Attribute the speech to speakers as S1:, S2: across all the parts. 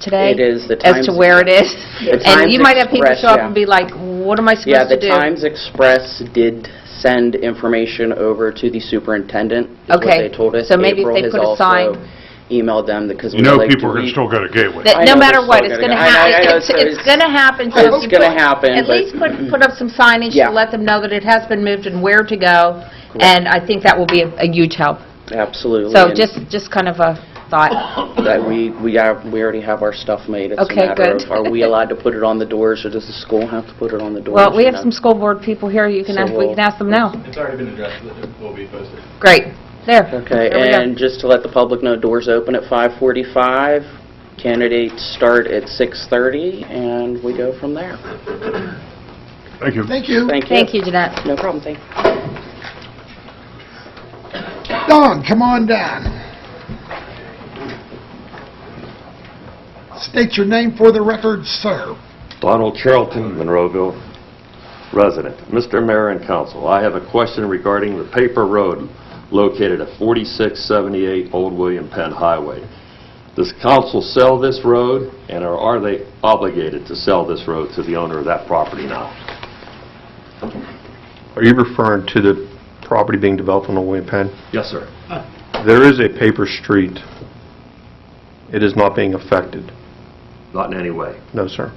S1: today?
S2: It is, the
S1: As
S2: Times-
S1: to where it is?
S2: The
S1: And
S2: Times
S1: you might have people
S2: Express,
S1: show up
S2: yeah.
S1: and be like, what am I
S2: Yeah,
S1: supposed
S2: the
S1: to do?
S2: Times Express did send information over to the superintendent, is what
S1: Okay,
S2: they told us.
S1: so maybe if
S2: April
S1: they
S2: has
S1: put a
S2: also
S1: sign-
S2: Emailed them because we
S3: You
S2: like to
S3: know
S2: read...
S3: people are going to still go to Gateway.
S1: That
S2: I
S1: no
S2: know
S1: matter
S2: they're
S1: what,
S2: still
S1: it's
S2: gonna
S1: gonna
S2: go- I know- I
S1: happen,
S2: know,
S1: it's,
S2: so
S1: it's
S2: it's-
S1: gonna happen, so
S2: it's
S1: if you
S2: gonna
S1: put-
S2: happen,
S1: At
S2: but-
S1: least put, put up some signage to
S2: Yeah.
S1: let them know that it has been moved and where to go, and I think that will be a a huge help.
S2: Absolutely.
S1: So
S2: and
S1: just, just kind of a thought.
S2: That we, we are, we already have our stuff made. It's a
S1: Okay,
S2: matter
S1: good.
S2: of, are we allowed to put it on the doors, or does the school have to put it on the doors?
S1: Well, we
S2: you
S1: have
S2: know?
S1: some school board people here, you can
S2: So
S1: ask, we
S2: we'll-
S1: can ask them now.
S4: It's already been addressed, it will be posted.
S1: Great, there.
S2: Okay,
S1: There we go.
S2: and just to let the public know, doors open at 5:45, candidates start at 6:30, and we go from there.
S3: Thank you.
S5: Thank you.
S2: Thank you.
S1: Thank you, Jeanette.
S2: No problem, thank you.
S5: Don, come on down. State your name for the record, sir.
S6: Donald Charlton, Monroeville resident. Mr. Mayor and Council, I have a question regarding the paper road located at 4678 Old William Penn Highway. Does council sell this road, and are- are they obligated to sell this road to the owner of that property now?
S7: Are you referring to the property being developed on Old William Penn?
S6: Yes, sir.
S7: There is a paper street. It is not being affected.
S6: Not in any way.
S7: No, sir.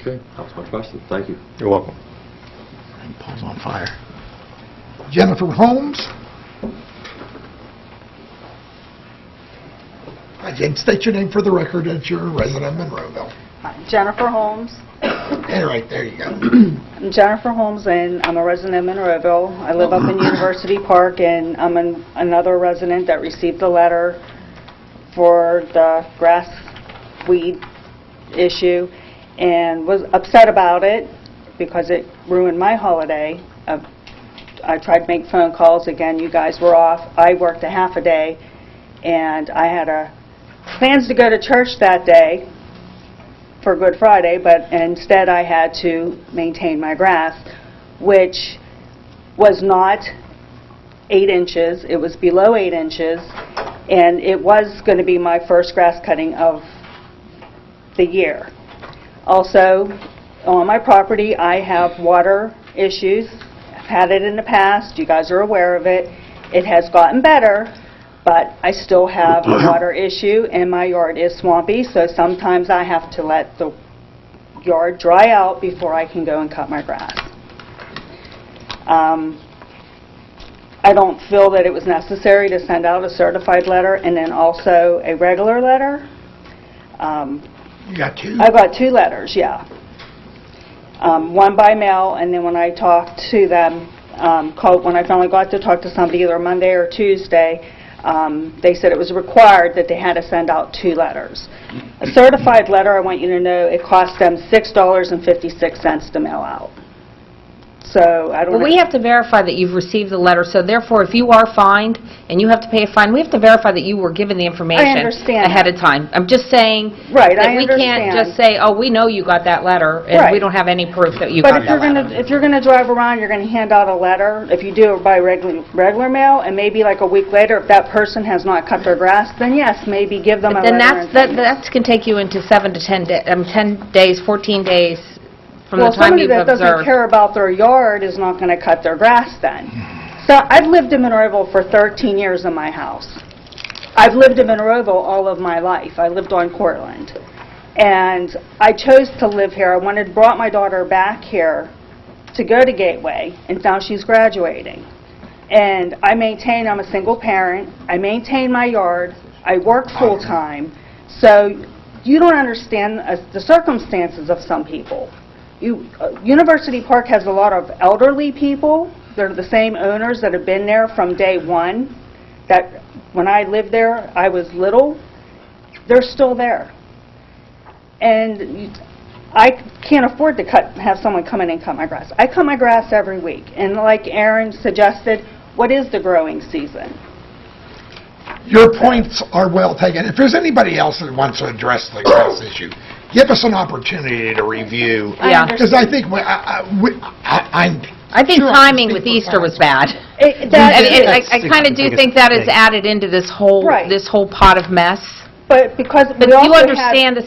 S6: Okay, that was my question. Thank you.
S7: You're welcome.
S5: Paul's on fire. Jennifer Holmes. Again, state your name for the record as you're a resident of Monroeville.
S8: Jennifer Holmes.
S5: All right, there you go.
S8: I'm Jennifer Holmes, and I'm a resident of Monroeville. I live up in University Park, and I'm an- another resident that received the letter for the grass weed issue, and was upset about it because it ruined my holiday. Uh, I tried to make phone calls. Again, you guys were off. I worked a half a day, and I had uh, plans to go to church that day, for Good Friday, but instead I had to maintain my grass, which was not eight inches, it was below eight inches, and it was going to be my first grass cutting of the year. Also, on my property, I have water issues, I've had it in the past, you guys are aware of it. It has gotten better, but I still have a water issue, and my yard is swampy, so sometimes I have to let the yard dry out before I can go and cut my grass. Um, I don't feel that it was necessary to send out a certified letter and then also a regular letter. Um,
S5: You got two.
S8: I got two letters, yeah. Um, One by mail, and then when I talked to them, um, called, when I finally got to talk to somebody either Monday or Tuesday, um, they said it was required that they had to send out two letters. A certified letter, I want you to know, it cost them $6.56 to mail out. So I don't...
S1: But we have to verify that you've received the letter, so therefore, if you are fined and you have to pay a fine, we have to verify that you were given the information.
S8: understand
S1: Ahead of time. I'm just saying.
S8: Right,
S1: That
S8: I
S1: we can't just
S8: understand.
S1: say, oh, we know you got that letter, and we
S8: Right.
S1: don't have any proof that you
S8: But
S1: got
S8: if you're
S1: that
S8: going
S1: letter.
S8: to, if you're going to drive around, you're going to hand out a letter, if you do it by regular, regular mail, and maybe like a week later, if that person has not cut their grass, then yes, maybe give them a letter.
S1: Then that's,
S8: and
S1: that
S8: send it.
S1: that can take you into seven to 10 days, 10 days, 14 days from the
S8: Well,
S1: time
S8: somebody
S1: you've
S8: that doesn't
S1: observed.
S8: care about their yard is not going to cut their grass then.
S1: Hmm.
S8: So I've lived in Monroeville for 13 years in my house. I've lived in Monroeville all of my life. I lived on Cortland. And I chose to live here. I wanted, brought my daughter back here to go to Gateway, and now she's graduating. And I maintain, I'm a single parent, I maintain my yard, I work full-time, so you don't understand uh, the circumstances of some people. You, uh, University Park has a lot of elderly people, they're the same owners that have been there from day one, that, when I lived there, I was little, they're still there. And you- I can't afford to cut, have someone come in and cut my grass. I cut my grass every week, and like Aaron suggested, what is the growing season?
S5: Your points are well taken. If there's anybody else that wants to address the grass issue, give us an opportunity to review.
S1: Yeah.
S5: Because I think, we- I, I- we- I- I'm...
S1: I think
S5: sure I'll
S1: timing
S5: speak
S1: with
S5: for
S1: Easter was
S5: Frank.
S1: bad.
S8: It-
S1: I
S8: that
S1: mean,
S8: is-
S1: I kind of do think that is added into this whole,
S8: Right.
S1: this whole pot of mess.
S8: But because
S1: But
S8: we
S1: you
S8: also had...
S1: understand the